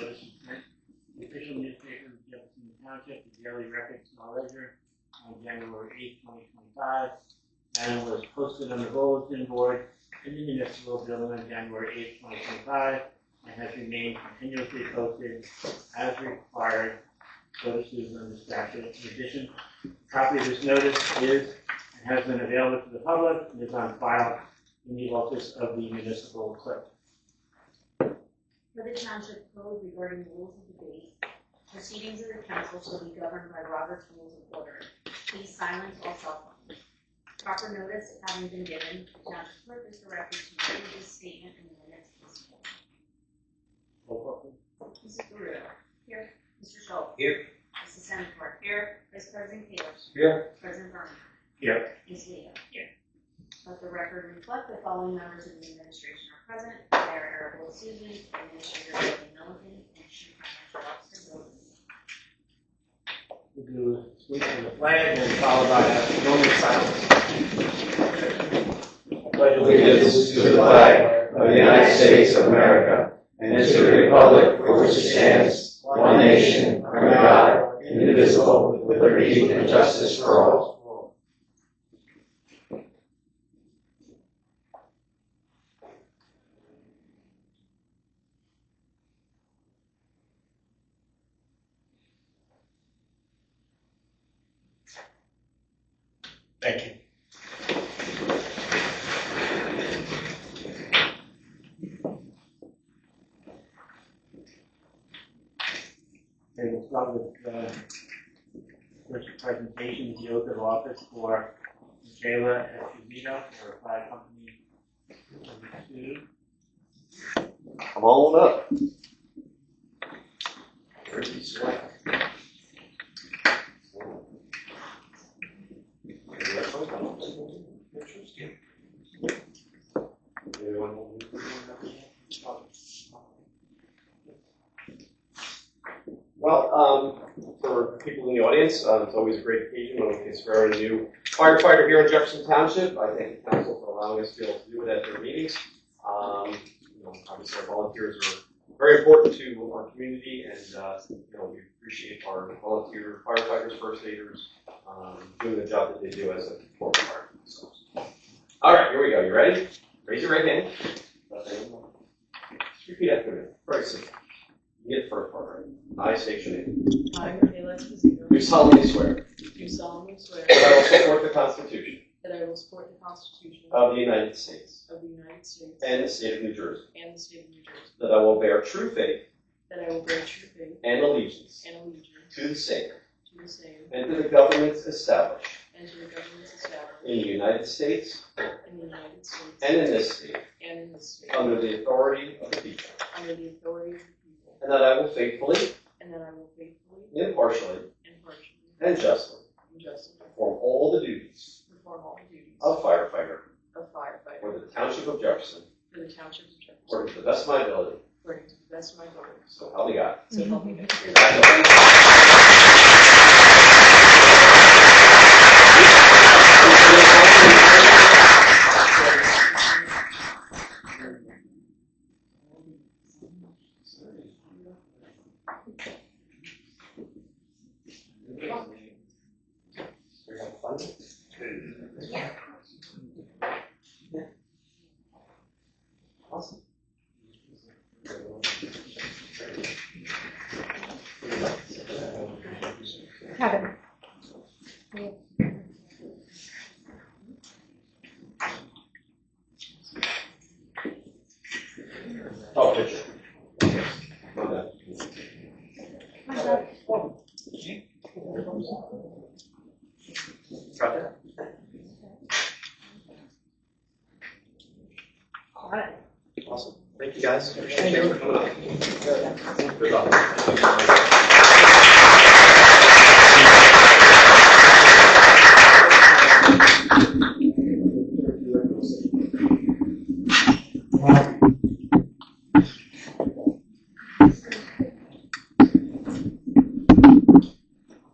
was the official newspaper of Jefferson Township, the Daily Record, Small Ledger, on January eighth, twenty twenty-five. And it was posted on the bulletin board in the municipal building on January eighth, twenty twenty-five, and has remained continuously posted as required notices on the statute. In addition, a copy of this notice is and has been available to the public and is on file in the office of the municipal clerk. For the township code regarding the rules of debate, proceedings of the council shall be governed by Robert's Rules of Order. Please silence all cell phones. Proper notice having been given, the township clerk is directed to read this statement in the minutes of this meeting. Roll call, please. Mrs. Gurudo. Here. Mr. Schultz. Here. Mrs. Senator. Here. Vice President Keilish. Here. President Berman. Here. Ms. Leo. Here. Let the record reflect the following members of the administration are present. Mayor Eric Susan, Administrator Billy Milliken, and Chief Financial Officer Bill Lewis. We'll do salute to the flag and followed by a moment of silence. pledge allegiance to the flag of the United States of America and to the republic for which it stands, one nation, under God, indivisible, with liberty and justice for all. Thank you. Okay, we'll start with, uh, first presentation, the oath of office for Michaela Esposito for Applied Company Number Two. Come on up. Well, um, for people in the audience, uh, it's always a great occasion when we can swear in a new firefighter here in Jefferson Township. I thank the council for allowing us to be able to do it at their meetings. Um, you know, obviously our volunteers are very important to our community and, uh, you know, we appreciate our volunteer firefighters, first aiders, um, doing the job that they do as a core part of themselves. All right, here we go. You ready? Raise your right hand. Just Repeat after me. Very simple. You get the first part right. I state your name. I, Michaela Esposito, Do solemnly swear do solemnly swear that I will support the Constitution that I will support the Constitution of of the United States the United States Uh, and the state of New Jersey, and the state of New Jersey, that I will bear true faith that I will bear true faith and allegiance and allegiance to the same to the same and to the governments established and to the governments established in the United States in the United States and in this state and in this state, under the authority of the people, under the authority of the people, and that I will faithfully, and that I will faithfully, impartially, impartially, and justly and justly perform all the duties perform all the duties of of firefighter firefighter for the Township of Jefferson for the township of Jefferson, according to the best of my ability. according to the best of my ability. So help me God. So help me God. Congratulations. Oh, picture. My bad. Got that? All right. Awesome. Thank you, guys. Appreciate you for coming up. Good luck.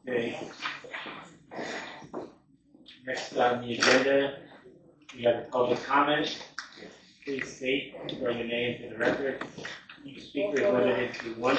Okay. Next on the agenda, we have a public comment. Please state, throw your name to the record, each speaker is limited to one